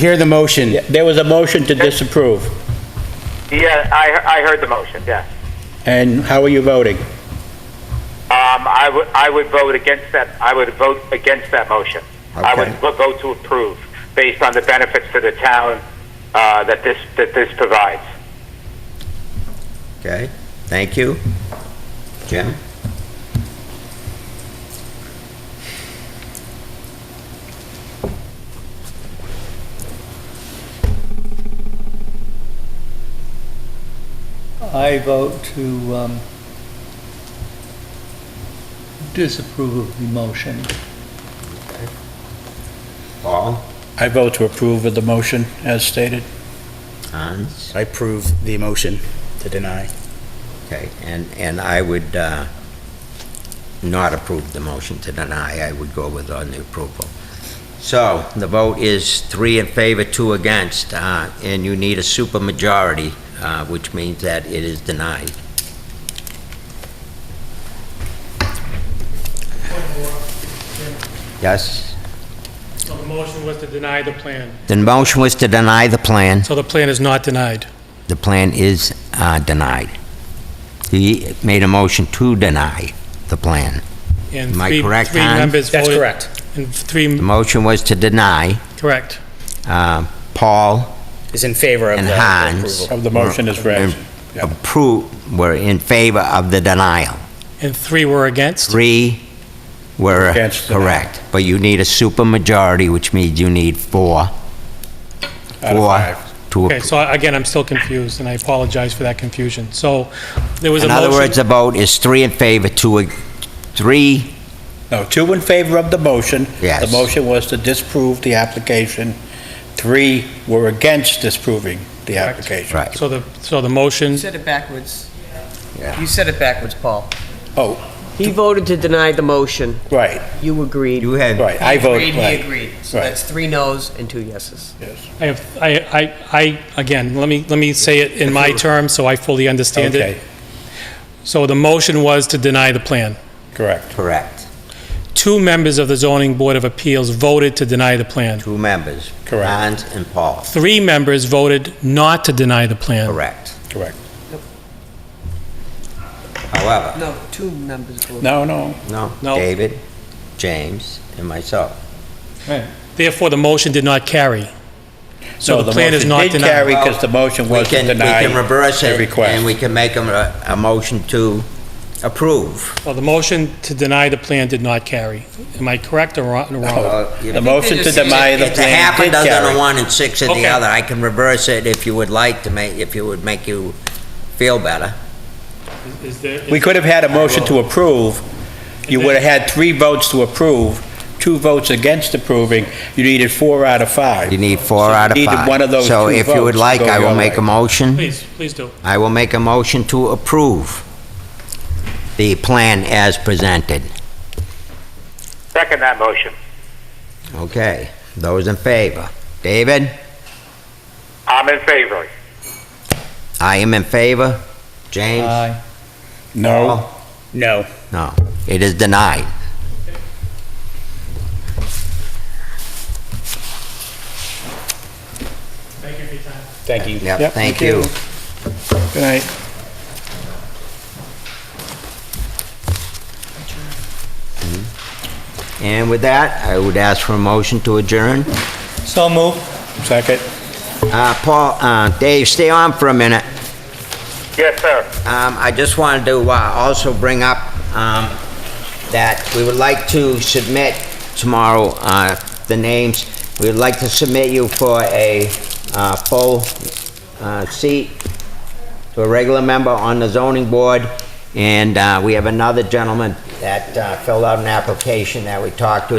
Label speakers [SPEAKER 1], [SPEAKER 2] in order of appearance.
[SPEAKER 1] Hear the motion.
[SPEAKER 2] There was a motion to disapprove,
[SPEAKER 3] Yeah, I, I heard the motion, yes.
[SPEAKER 2] and how are you voting?
[SPEAKER 3] Um, I would, I would vote against that, I would vote against that motion. I would
[SPEAKER 1] Okay.
[SPEAKER 3] vo- vote to approve, based on the benefits to the town, uh, that this, that this provides.
[SPEAKER 4] Okay, thank you. Jim?
[SPEAKER 5] I vote to um, disapprove of the motion.
[SPEAKER 4] Paul?
[SPEAKER 2] I vote to approve of the motion as stated.
[SPEAKER 4] Hans?
[SPEAKER 1] I approve the motion to deny.
[SPEAKER 4] Okay, and, and I would uh, not approve the motion to deny, I would go with on the approval. So, the vote is three in favor, two against, uh, and you need a supermajority, uh, which means that it is denied. Yes?
[SPEAKER 6] So the motion was to deny the plan.
[SPEAKER 4] The motion was to deny the plan.
[SPEAKER 6] So the plan is not denied.
[SPEAKER 4] The plan is uh, denied. He made a motion to deny the plan.
[SPEAKER 6] and
[SPEAKER 4] Am I
[SPEAKER 6] three-
[SPEAKER 4] correct,
[SPEAKER 6] Three
[SPEAKER 4] Hans?
[SPEAKER 6] members
[SPEAKER 1] That's
[SPEAKER 6] voted-
[SPEAKER 1] correct.
[SPEAKER 6] And three,
[SPEAKER 4] The motion was to deny.
[SPEAKER 6] correct.
[SPEAKER 4] Uh, Paul
[SPEAKER 1] Is in favor of the
[SPEAKER 4] and
[SPEAKER 1] the
[SPEAKER 4] Hans.
[SPEAKER 1] approval.
[SPEAKER 2] Of the motion is read.
[SPEAKER 4] Approve, were in favor of the denial.
[SPEAKER 6] And three were against.
[SPEAKER 4] Three were
[SPEAKER 2] Against the
[SPEAKER 4] correct. But you need a supermajority, which means you need four.
[SPEAKER 2] Out of five.
[SPEAKER 4] Four to
[SPEAKER 6] Okay,
[SPEAKER 4] approve.
[SPEAKER 6] so again, I'm still confused, and I apologize for that confusion. So there was a
[SPEAKER 4] In
[SPEAKER 6] motion.
[SPEAKER 4] other words, the vote is three in favor, two, ag- three,
[SPEAKER 2] No, two in favor of the motion.
[SPEAKER 4] Yes.
[SPEAKER 2] The motion was to disprove the application. Three were against disproving the
[SPEAKER 6] Correct.
[SPEAKER 2] application.
[SPEAKER 4] right.
[SPEAKER 6] So the, so the motion,
[SPEAKER 7] You said it backwards.
[SPEAKER 4] Yeah.
[SPEAKER 7] You said it backwards, Paul.
[SPEAKER 2] Oh,
[SPEAKER 8] He voted to deny the motion.
[SPEAKER 2] right,
[SPEAKER 8] You agreed.
[SPEAKER 4] You had
[SPEAKER 2] right. I voted.
[SPEAKER 7] Agreed, he
[SPEAKER 2] right.
[SPEAKER 7] agreed. So
[SPEAKER 2] Right.
[SPEAKER 7] that's three no's and two yeses.
[SPEAKER 2] Yes.
[SPEAKER 6] I, have- I, I, I again, let me, let me say it in my terms, so I fully understand
[SPEAKER 2] Okay,
[SPEAKER 6] it. So the motion was to deny the plan.
[SPEAKER 2] correct.
[SPEAKER 4] correct.
[SPEAKER 6] Two members of the zoning board of appeals voted to deny the plan.
[SPEAKER 4] Two members.
[SPEAKER 2] Correct.
[SPEAKER 4] Hans and Paul.
[SPEAKER 6] Three members voted not to deny the plan.
[SPEAKER 4] Correct.
[SPEAKER 2] Correct.
[SPEAKER 4] However,
[SPEAKER 7] No, two members voted.
[SPEAKER 2] No, no.
[SPEAKER 4] no,
[SPEAKER 6] No.
[SPEAKER 4] David, James, and myself.
[SPEAKER 6] Therefore, the motion did not carry. So
[SPEAKER 2] No,
[SPEAKER 6] the plan is
[SPEAKER 2] motion
[SPEAKER 6] not
[SPEAKER 2] Did carry
[SPEAKER 6] denied.
[SPEAKER 2] because the motion
[SPEAKER 4] We
[SPEAKER 2] was to
[SPEAKER 4] can, we
[SPEAKER 2] deny.
[SPEAKER 4] can reverse
[SPEAKER 2] the
[SPEAKER 4] it,
[SPEAKER 2] request.
[SPEAKER 4] and we can make a, a motion to approve.
[SPEAKER 6] Well, the motion to deny the plan did not carry. Am I correct or wrong?
[SPEAKER 2] No.
[SPEAKER 4] Uh, you-
[SPEAKER 2] Oh, The motion to deny the
[SPEAKER 4] It's a
[SPEAKER 2] plan
[SPEAKER 4] half a
[SPEAKER 2] did
[SPEAKER 4] dozen of
[SPEAKER 2] carry.
[SPEAKER 4] one and six of the
[SPEAKER 6] Okay.
[SPEAKER 4] other. I can reverse it if you would like to make, if it would make you feel better.
[SPEAKER 6] Is there-
[SPEAKER 2] We could have had a motion to approve. You would have had three votes to approve, two votes against approving. You needed four out of five.
[SPEAKER 4] You need four
[SPEAKER 2] So you
[SPEAKER 4] out of
[SPEAKER 2] needed
[SPEAKER 4] five.
[SPEAKER 2] one of those
[SPEAKER 4] So
[SPEAKER 2] two
[SPEAKER 4] if you would
[SPEAKER 2] votes
[SPEAKER 4] like,
[SPEAKER 2] to go
[SPEAKER 4] I will
[SPEAKER 2] your
[SPEAKER 4] make a
[SPEAKER 2] way.
[SPEAKER 4] motion.
[SPEAKER 6] Please, please do.
[SPEAKER 4] I will make a motion to approve the plan as presented.
[SPEAKER 3] Second that motion.
[SPEAKER 4] Okay, those in favor? David?
[SPEAKER 3] I'm in favor.
[SPEAKER 4] I am in favor. James?
[SPEAKER 5] Aye.
[SPEAKER 2] No, no.
[SPEAKER 4] No, it is denied.
[SPEAKER 6] Thank you for your time.
[SPEAKER 2] Thank you.
[SPEAKER 4] Yep, thank you.
[SPEAKER 2] Good night.
[SPEAKER 4] Hmm? And with that, I would ask for a motion to adjourn.
[SPEAKER 5] So move.
[SPEAKER 2] Second.
[SPEAKER 4] Uh, Paul, uh, Dave, stay on for a minute.
[SPEAKER 3] Yes, sir.
[SPEAKER 4] Um, I just wanted to uh, also bring up um, that we would like to submit tomorrow uh, the names. We would like to submit you for a uh, full uh, seat to a regular member on the zoning board. And uh, we have another gentleman that uh, filled out an application that we talked to.